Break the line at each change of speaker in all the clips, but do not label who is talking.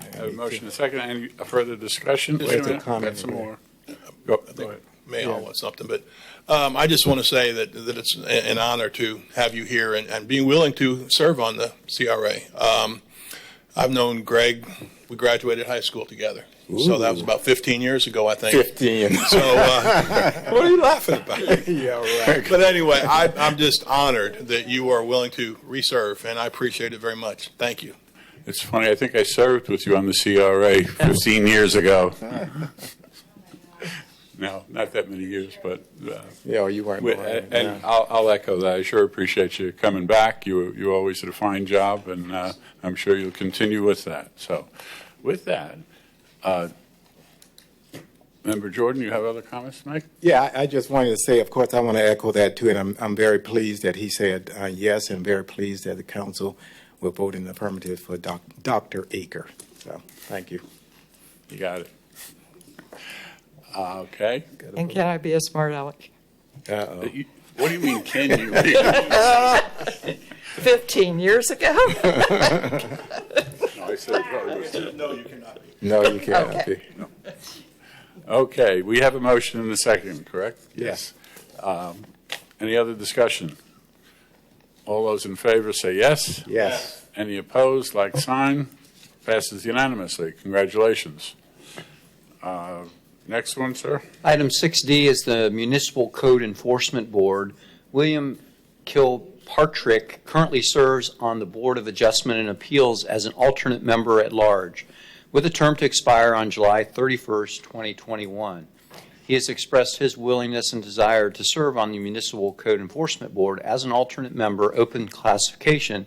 I have a motion and a second. Any further discussion?
Just
Wait
a
a minute, I've got
comment.
some more. Go
I
go
think
ahead.
Mayall wants something, but um, I just want to say that, that it's a- an honor to have you here and, and being willing to serve on the CRA. Um, I've known Greg, we graduated high school together. So that was about 15 years ago, I think.
15.
So, uh,
what are you laughing about?
Yeah, right.
but anyway, I, I'm just honored that you are willing to reserve, and I appreciate it very much. Thank you.
It's funny, I think I served with you on the CRA 15 years ago. No, not that many years, but, uh,
Yeah, you weren't.
we-
lying,
and
yeah.
I'll I'll echo that. I sure appreciate you coming back. You you always did a fine job, and uh, I'm sure you'll continue with that. So with that, uh, Member Jordan, you have other comments to make?
Yeah, I, I just wanted to say, of course, I want to echo that too, and I'm, I'm very pleased that he said uh, yes, and very pleased that the council will vote in the affirmative for doc, Dr. Aker. So, thank you.
You got it. Uh, Okay.
And can I be a smart aleck?
Uh-oh.
You- What do you mean, can you? No,
15 years ago?
I said probably was-
No, you cannot.
No, you can't.
Okay.
Okay, we have a motion and a second, correct?
Yes.
Um, Any other discussion? All those in favor say yes.
Yes.
Any opposed, like sign. Passes unanimously. Congratulations. Uh, Next one, sir?
Item 6D is the Municipal Code Enforcement Board. William Kilpatrick currently serves on the Board of Adjustment and Appeals as an alternate member at large, with a term to expire on July 31st, 2021. He has expressed his willingness and desire to serve on the Municipal Code Enforcement Board as an alternate member, open classification,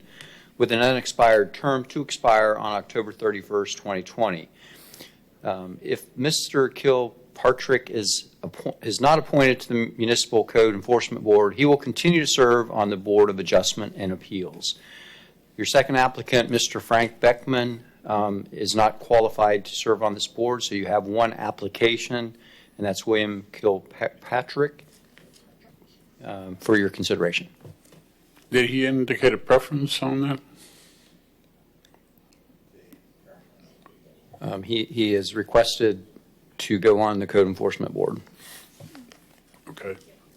with an unexpired term to expire on October 31st, 2020. Um, If Mr. Kilpatrick is, appo- is not appointed to the Municipal Code Enforcement Board, he will continue to serve on the Board of Adjustment and Appeals. Your second applicant, Mr. Frank Beckman, um, is not qualified to serve on this board, so you have one application, and that's William Kilpatrick, um, for your consideration.
Did he indicate a preference on that?
Um, He, he is requested to go on the Code Enforcement Board.
Okay.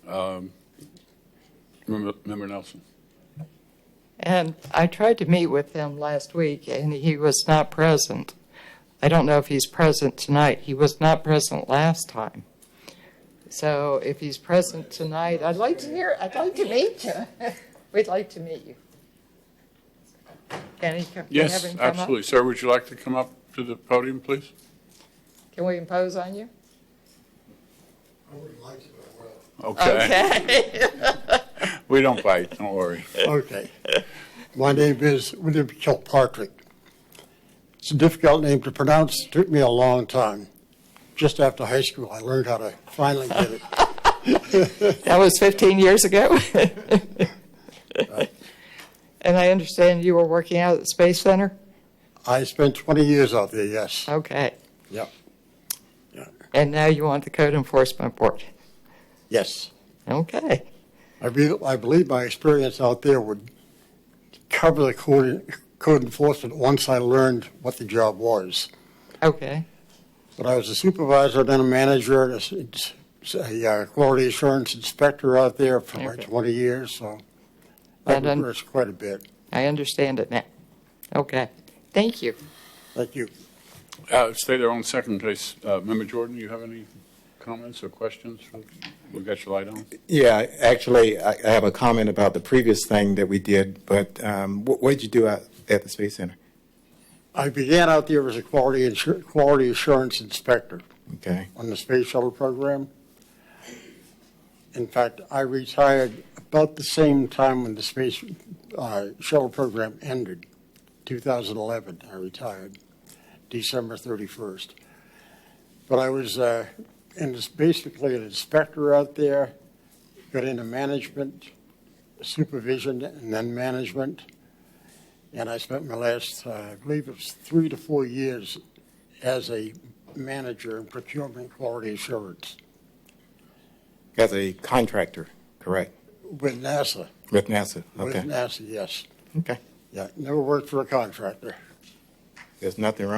Um, Member Member Nelson?
And I tried to meet with him last week, and he was not present. I don't know if he's present tonight. He was not present last time. So if he's present tonight, I'd like to hear, I'd like to meet you. We'd like to meet you. Can he come? can we have
Yes,
him come up?
absolutely. Sir, would you like to come up to the podium, please?
Can we impose on you?
Okay. We don't bite, don't worry.
Okay. My name is William Kilpatrick. It's a difficult name to pronounce. It took me a long time. Just after high school, I learned how to finally get it.
That was 15 years ago. And I understand you were working out at the Space Center?
I spent 20 years out there, yes.
Okay.
Yep.
And now you want the Code Enforcement Board?
Yes.
Okay.
I be- I believe my experience out there would cover the code code enforcement once I learned what the job was.
Okay.
But I was a supervisor, then a manager, and a s- s- a uh, quality assurance inspector out there for like
Okay.
20 years, so
Well
I've
done.
reversed quite a bit.
I understand it now. Okay. Thank you.
Thank you.
Uh, Stay there on second place. Uh, Member Jordan, you have any comments or questions? We've got your light on.
Yeah, actually, I, I have a comment about the previous thing that we did, but um, what, what did you do out at the Space Center?
I began out there as a quality, insur- quality assurance inspector
Okay.
on the space shuttle program. In fact, I retired about the same time when the space uh, shuttle program ended, 2011. I retired December 31st. But I was, uh, and it's basically an inspector out there, got into management, supervision, and then management. And I spent my last, uh, I believe it was three to four years as a manager in procurement quality assurance
As a contractor, correct?
with NASA.
With NASA.
With
Okay.
NASA, yes.
Okay.
Yeah, never worked for a contractor.
There's nothing wrong